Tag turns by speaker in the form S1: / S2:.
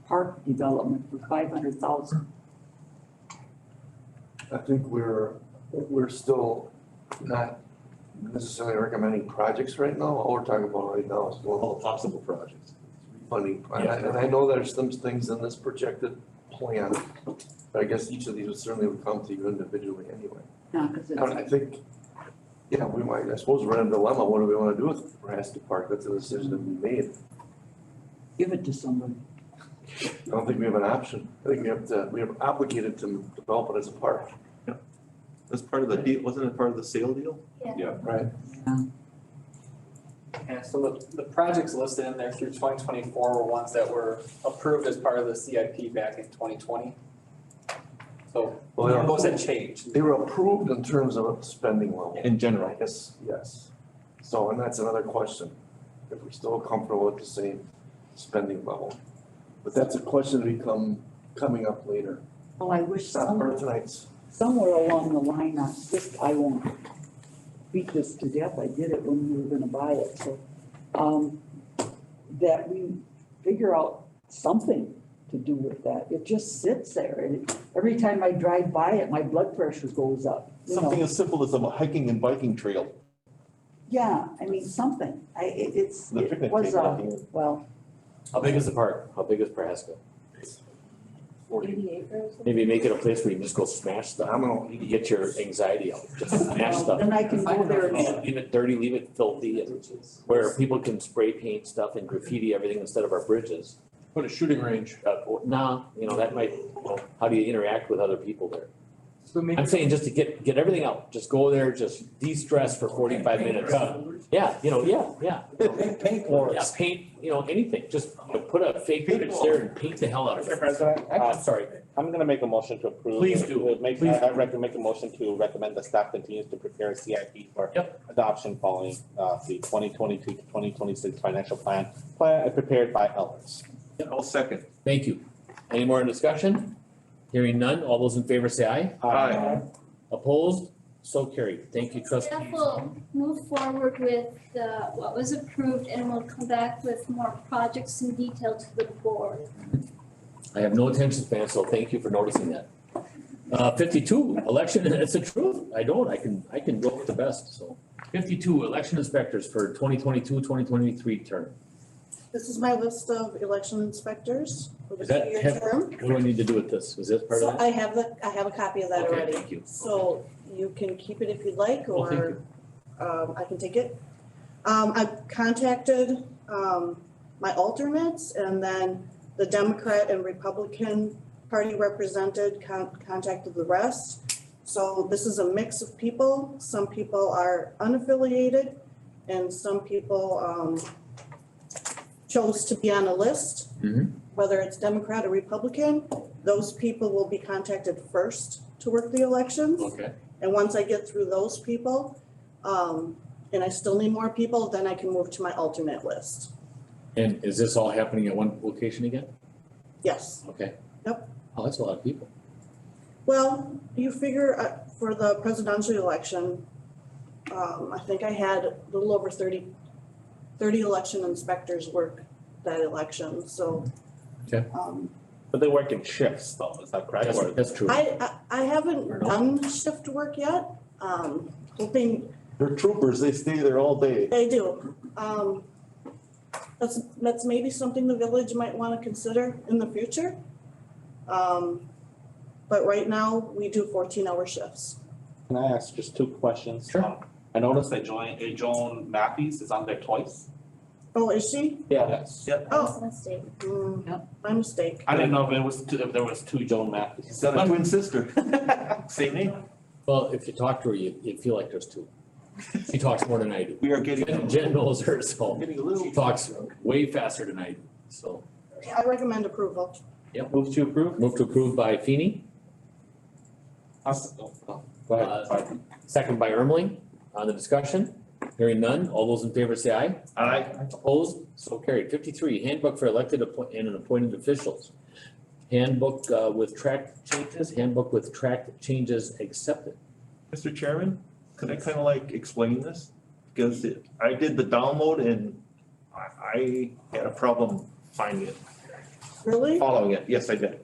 S1: development for five hundred thousand.
S2: I think we're, we're still not necessarily recommending projects right now. All we're talking about right now is
S3: all
S2: well,
S3: the possible projects.
S2: funding. And I- and I know there's some things in this projected plan, but I guess each of these would certainly would come to you individually anyway.
S1: No, because
S2: And I
S1: it's,
S2: think, yeah, we might, I suppose we're in a dilemma. What do we want to do with Raskey Park? That's a decision to be made.
S1: give it to somebody.
S2: I don't think we have an option. I think we have to, we are obligated to develop it as a park.
S3: That's part of the deal, wasn't it part of the sale deal?
S2: Right.
S4: And so the, the projects listed in there through twenty twenty-four were ones that were approved as part of the CIP back in twenty twenty. So
S2: Well, they
S4: those
S2: are-
S4: had changed.
S2: they were approved in terms of spending level.
S3: In general.
S2: Yes, yes. So, and that's another question, if we're still comfortable with the same spending level. But that's a question to become, coming up later.
S1: Well, I wish
S2: It's not
S1: some,
S2: for tonight's,
S1: somewhere along the line, I just, I won't beat this to death, I did it when we were gonna buy it, so. Um, that we figure out something to do with that, it just sits there, and every time I drive by it, my blood pressure goes up, you know.
S3: Something as simple as a hiking and biking trail,
S1: Yeah, I mean, something, I, it, it's,
S3: the
S1: it
S3: picnic
S1: was
S3: table.
S1: a, well, uh,
S5: How big is the park? How big is Prohaska?
S6: Eighty acres?
S5: Maybe make it a place where you can just go smash stuff.
S2: phenomenal.
S5: You get your anxiety out, just smash
S1: well,
S5: stuff.
S1: then I can go there and,
S5: Leave it dirty, leave it filthy, and where people can spray paint stuff and graffiti everything instead of our bridges.
S3: Put a shooting range.
S5: Uh, or- nah, you know, that might, you know, how do you interact with other people there?
S4: So maybe
S5: I'm saying just to get, get everything out, just go there, just de-stress for forty-five minutes. Yeah, you know, yeah, yeah.
S7: Paint, paint
S5: Yeah,
S7: wars.
S5: paint, you know, anything, just you know, put a fake bridge there and paint the hell out of
S8: Mr.
S5: it.
S8: President,
S5: Uh,
S8: I-
S5: sorry,
S8: I'm gonna make a motion to approve.
S5: Please do.
S8: Make,
S5: Please
S8: I recommend, make a motion to recommend the staff continues to prepare CIP for adoption following, uh, the twenty twenty-two to twenty twenty-six financial plan, plan uh, prepared by Ellers.
S3: I'll second.
S5: thank you. Any more in discussion? Hearing none, all those in favor say aye.
S8: Uh,
S3: Aye.
S5: Opposed? So carried. Thank you, trustee.
S6: Staff will move forward with the, what was approved and we will come back with more projects in detail to the board.
S5: I have no attention span, so thank you for noticing that. Uh, fifty-two, election, and it's the truth. I don't, I can, I can go with the best, so. Fifty-two, election inspectors for 2022-2023 term.
S9: This is my list of election inspectors for the
S5: Is that
S9: two-year
S5: him?
S9: term.
S5: What do I need to do with this? Is this part
S9: So
S5: of it?
S9: I have the, I have a copy of that
S5: Okay,
S9: already.
S5: thank you.
S9: So you can keep it if you'd like,
S5: Well, thank
S9: or, um, I can take it. Um, I contacted, um, my alternates and then the Democrat and Republican Party represented con- contacted the rest. So this is a mix of people. Some people are unaffiliated and some people, um, chose to be on a list.
S5: Mhm.
S9: Whether it's Democrat or Republican, those people will be contacted first to work the elections.
S5: Okay,
S9: And once I get through those people, um, and I still need more people, then I can move to my alternate list.
S5: and is this all happening at one location again?
S9: Yes.
S5: Okay.
S9: Yep.
S5: Oh, that's a lot of people.
S9: Well, you figure uh, for the presidential election, um, I think I had a little over 30 30 election inspectors work that election, so.
S5: Okay.
S9: um,
S8: But they work in shifts though, is that correct?
S5: That's,
S8: Or-
S5: that's true.
S9: I, I, I haven't
S5: Or not.
S9: done shift work yet, um, hoping,
S3: They're troopers, they stay there all day.
S9: I do. Um, that's, that's maybe something the village might wanna consider in the future. Um, but right now, we do fourteen hour shifts.
S8: Can I ask just two questions?
S5: Sure.
S8: Um, I noticed that Joan, uh, Joan Matthews is on there twice.
S9: Oh, is she?
S8: Yes.
S6: That
S9: Oh.
S6: was a mistake.
S9: Hmm,
S1: Yep.
S9: my mistake.
S8: I didn't know if it was, two- if there was two Joan Matthews.
S3: She's got a twin sister.
S8: Same name?
S5: Well, if you talk to her, you, you feel like there's two. She talks more than I do.
S3: We are getting,
S5: Jen Jen knows her, so
S3: getting a little.
S5: she talks way faster than I do, so.
S9: I recommend approval.
S8: Move to approve?
S5: Move to approve by Feeny,
S8: I'll s- oh, oh, Go
S5: Uh,
S8: ahead, sorry.
S5: second by Ermling. On the discussion, hearing none, all those in favor say aye.
S8: Aye.
S5: Opposed, so carried. Fifty-three, handbook for elected appoint- and appointed officials. Handbook uh, with track changes, handbook with track changes accepted.
S3: Mr. Chairman, could I kind of like explain this? Because it- I did the download and I, I had a problem finding it.
S10: Really?
S9: Following it, yes, I did.